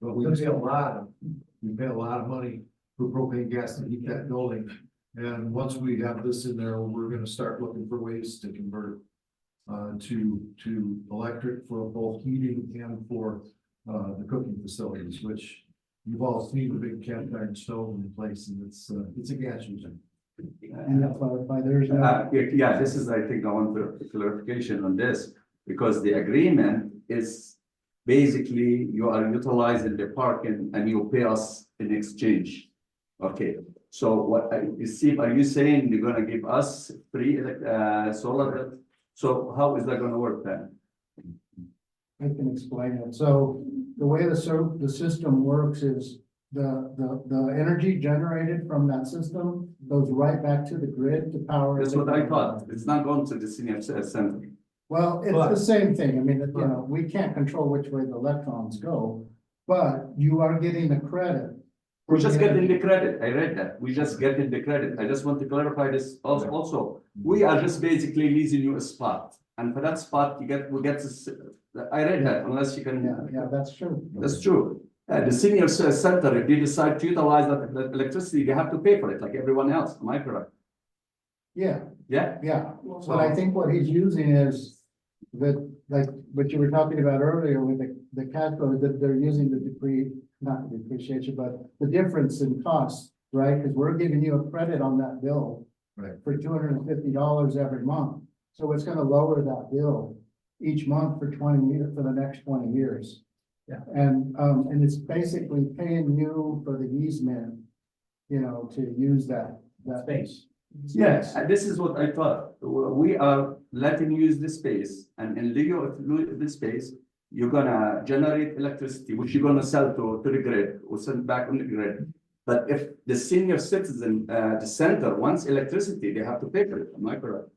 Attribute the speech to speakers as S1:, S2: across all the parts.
S1: But we pay a lot of, we pay a lot of money for propane gas to heat that building. And once we have this in there, we're gonna start looking for ways to convert. Uh, to, to electric for both heating and for, uh, the cooking facilities, which. You've all seen the big cast iron stove in place and it's, uh, it's a gas user.
S2: And that's why- why there's no,
S3: Uh, yeah, yeah, this is, I think, I want the clarification on this, because the agreement is basically you are utilizing the park and, and you pay us in exchange. Okay, so what I, you see, are you saying you're gonna give us free, elec- uh, solar? So how is that gonna work then?
S2: I can explain it. So the way the so, the system works is the, the, the energy generated from that system goes right back to the grid to power.
S3: That's
S2: the-
S3: what I thought, it's not going to the senior c- center,
S2: Well, it's
S1: But-
S2: the same thing. I mean, it- you
S1: Right.
S2: know, we can't control which way the electrons go, but you are getting the credit. for
S3: we're just
S2: the
S3: getting the credit, I read that, we just getting the credit, I just want to clarify this also, also. We are just basically leasing you a spot, and for that spot, you get, we get this, uh, I read that, unless you
S2: energy.
S3: can,
S2: Yeah, yeah, that's true.
S3: that's true. Uh, the senior c- center, if they decide to utilize that that electricity, they have to pay for it, like everyone else, am I correct?
S2: Yeah,
S3: Yeah,
S2: yeah. But I think what he's using is that, like, what you were talking about earlier with the, the cash flow, that they're using the depre, not the depreciation, but the difference in costs, right? Because we're giving you a credit on that bill.
S1: Right.
S2: For two hundred and fifty dollars every month. So it's gonna lower that bill each month for twenty year, for the next twenty years.
S1: Yeah.
S2: And, um, and it's basically paying you for the easement, you know, to use that, that. Space. Yes.
S3: Uh, this is what I thought, W- we are letting you use this space, and in lieu of lo- this space, you're gonna generate electricity, which you're gonna sell to, to the grid, or send back on the grid. But if the senior citizen, uh, the center wants electricity, they have to pay for it, am I correct?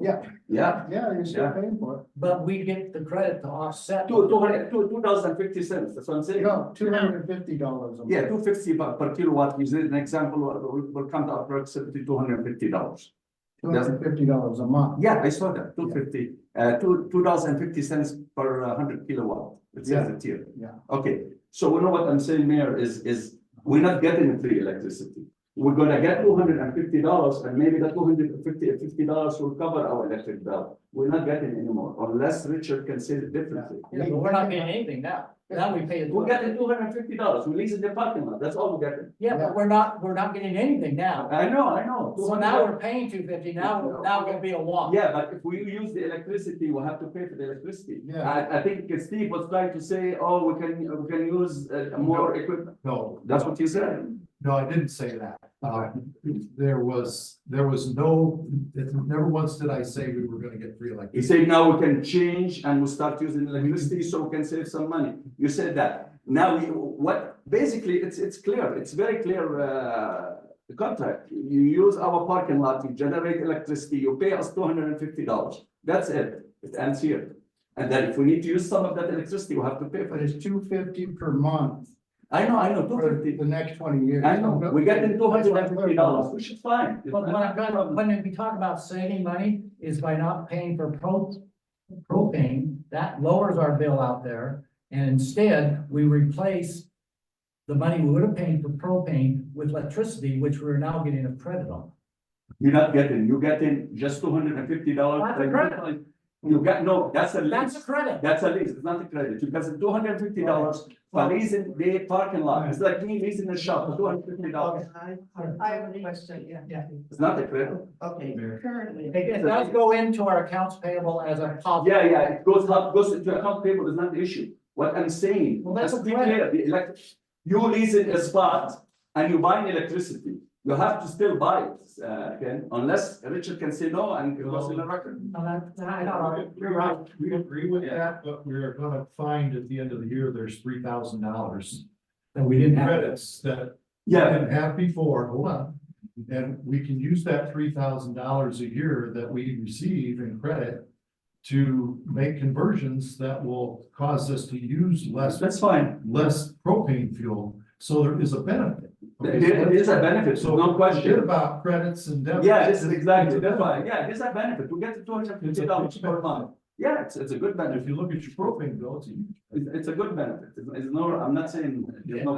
S2: Yeah.
S3: Yeah,
S2: Yeah, you're still
S3: Yeah.
S2: paying for it.
S4: But we get the credit to offset.
S3: two, two hundred, two, two thousand fifty cents, that's what I'm saying.
S2: No, two hundred and fifty dollars a month.
S3: Yeah, two fifty per, per kilowatt, is an example, will, will come to approximately two hundred and fifty dollars.
S2: Two hundred and fifty dollars a month.
S3: Yeah, I saw that, two fifty, uh, two, two dollars and fifty cents per uh, hundred kilowatt, it says it here.
S2: Yeah.
S3: Okay, so you know what I'm saying, Mayor, is, is we're not getting free electricity. We're gonna get two hundred and fifty dollars, and maybe that two hundred and fifty, fifty dollars will cover our electric bill. We're not getting anymore, unless Richard can say it differently.
S4: Yeah, but we're not paying anything now. Now we pay it.
S3: We're getting two hundred and fifty dollars, we lease the parking lot, that's all we're getting.
S4: Yeah, but we're not, we're not getting anything now.
S3: I know, I know.
S4: So now we're paying two fifty, now, now it'll be a wash.
S3: Yeah, but if we use the electricity, we'll have to pay for the electricity.
S2: Yeah.
S3: I, I think Steve was trying to say, oh, we can, we can use uh, more equipment.
S1: No,
S3: That's what you said.
S1: No, I didn't say that. Uh, there was, there was no, never once did I say we were gonna get free
S3: He
S1: electricity.
S3: said now we can change and we start using electricity so we can save some money. You said that. Now, we- what, basically, it's, it's clear, it's very clear, uh, the contract. You use our parking lot, you generate electricity, you pay us two hundred and fifty dollars. That's it. It ends here. And then if we need to use some of that electricity, we have to pay for
S2: But
S3: it.
S2: it's two fifty per month
S3: I know, I know, two
S2: for
S3: fifty.
S2: the next twenty years.
S3: I know, we're getting two hundred and fifty dollars, which is fine. It's
S4: But when
S3: not
S4: I'm
S3: a problem.
S4: done, when we talk about saving money is by not paying for pro- propane, that lowers our bill out there. And instead, we replace the money we would have paid for propane with electricity, which we're now getting a credit on.
S3: You're not getting, you're getting just two hundred and fifty dollars.
S4: That's a credit.
S3: You got, no, that's a
S4: That's a
S3: lease,
S4: credit.
S3: that's a lease, it's not a credit, you got two hundred and fifty dollars for leasing the parking lot, it's like me leasing a shop, two hundred and fifty dollars,
S5: I, I have a question, yeah.
S4: Yeah.
S3: it's not a credit.
S5: Okay,
S1: Mayor.
S5: currently.
S4: It it does go into our accounts payable as a positive.
S3: Yeah, yeah, it goes up, goes into account payable, is not the issue, what I'm saying,
S4: Well, that's
S3: let's
S4: a
S3: be clear,
S4: credit.
S3: the elect. You leasing a spot and you buying electricity, you have to still buy it, uh, Ken, unless Richard can say no and it goes in the record.
S4: No, that's not, no, you're right.
S1: We agree with that, but we're gonna find at the end of the year, there's three thousand dollars
S4: That we didn't have.
S1: credits that we
S3: Yeah,
S1: didn't have before, hold on. And we can use that three thousand dollars a year that we receive in credit to make conversions that will cause us to use less,
S3: that's fine,
S1: less propane fuel, so there is a benefit.
S3: There- there is a benefit, so no
S1: Forget
S3: question.
S1: about credits and debits.
S3: Yeah, this is exactly, that's why, yeah, this is a benefit, we get two hundred and fifty dollars per month. Yeah, it's, it's a good benefit.
S1: If you look at your propane bill, it's a huge.
S3: It's, it's a good benefit. It's, it's no, I'm not saying there's no